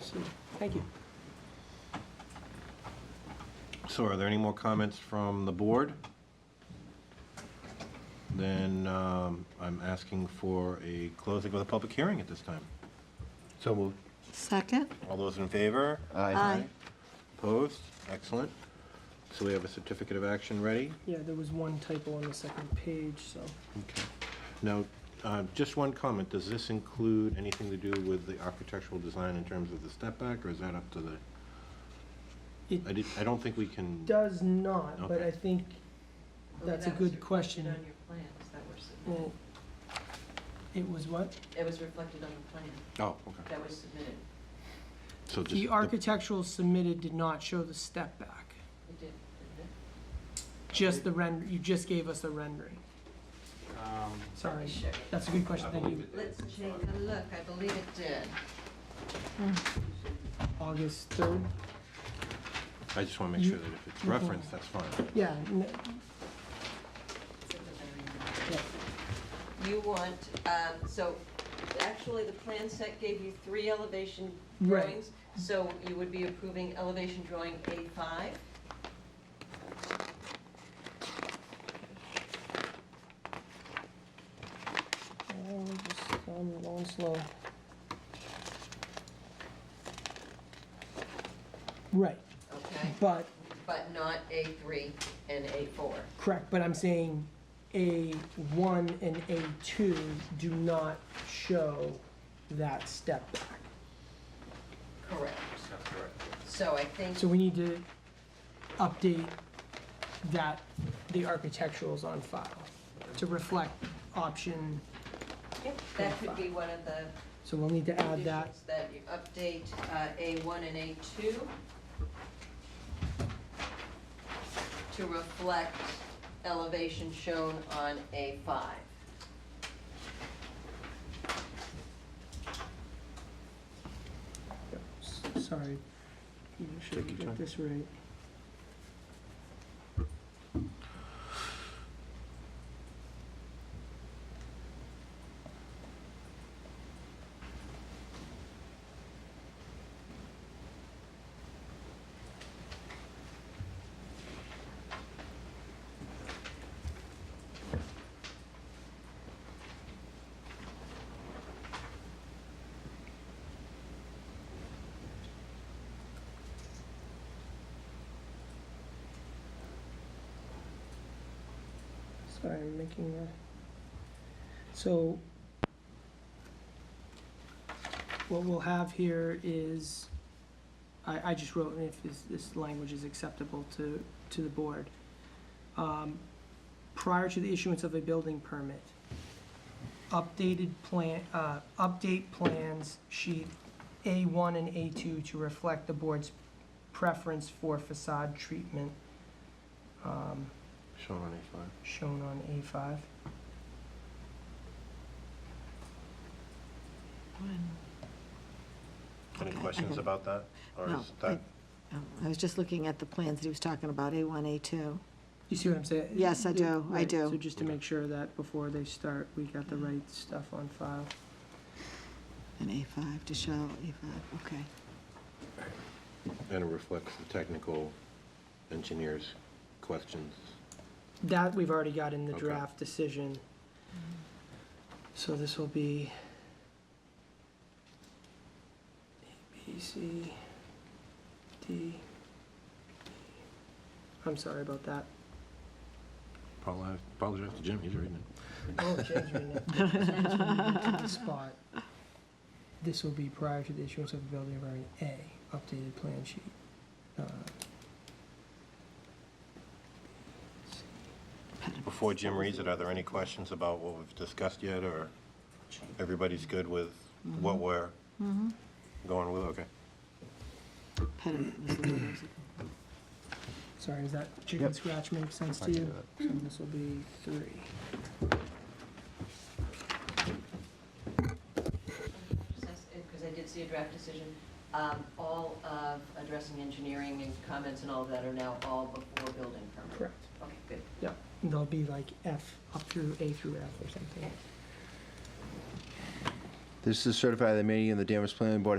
So, Thank you. So are there any more comments from the board? Then um, I'm asking for a closing of the public hearing at this time. So moved. Second? All those in favor? Aye. Opposed? Excellent. So we have a certificate of action ready. Yeah, there was one typo on the second page, so. Okay. Now, uh, just one comment, does this include anything to do with the architectural design in terms of the step back, or is that up to the? It- I did, I don't think we can, Does not, but Okay. I think Well, that's a that was good question. reflected on your plans that were Well, submitted. it was what? It was reflected on the plan oh, okay. that was submitted. So just. The architectural submitted did not show the step back, It did, didn't it? just the render, you just gave us a rendering. Um, Let Sorry, me check. that's a good question, I thank believe you. it Let's is. take a look. I believe it did. Hmm. August third? I just want to make sure that if it's You- referenced, that's fine. Yeah, n- You want, um, so actually, the plan set gave you three elevation Right. drawings. So you would be approving elevation drawing A5. oh, just, I'm going slow. Right, Okay, but but not A3 and A4. Correct, but I'm saying A1 and A2 do not show that step back. Correct. That's correct. So I think, So we need to update that, the architecturals on file to reflect option, that could be one of the so we'll need to add that. conditions That you update uh, A1 and A2 to reflect elevation shown on A5. S- Sorry, you should Take your get time. this right. Sorry, I'm making a, so what we'll have here is, I, I just wrote, and if this, this language is acceptable to, to the board. Um, Prior to the issuance of a building permit, updated plan, uh, update plans sheet A one and A two to reflect the board's preference for facade treatment. Um, Shown on A5. shown on A5. Any Okay, I questions don't- about that? Or No, is that, Oh, I was just looking at the plans that he was talking about, A1, A2. You see what I'm saying? Yes, I do, I Right, do. So just to make sure that before they start, we got the right stuff on file. And A5 to show, A5, okay. and it reflects the technical engineer's questions. That we've already got in the Okay. draft decision. So this will be A, B, C, D. E. I'm sorry about that. Apologize apologize to Jim, he's reading it. Oh, changing it. Changing it to the Spot. This will be prior to the issuance of a building permit, A, updated plan sheet. Uh, Before Jim reads it, are there any questions about what we've discussed yet, or everybody's good with what we're Mhm. going with? Okay. Pediment was the word I was looking Sorry, does that chicken scratch make sense to you? So this will be three. Because I did see a draft decision. Um, All of addressing engineering and comments and all of that are now all before building permit. Correct. Okay, good. And They'll be like F up through A through F or something. This is certified that the meeting of the Danvers Planning Board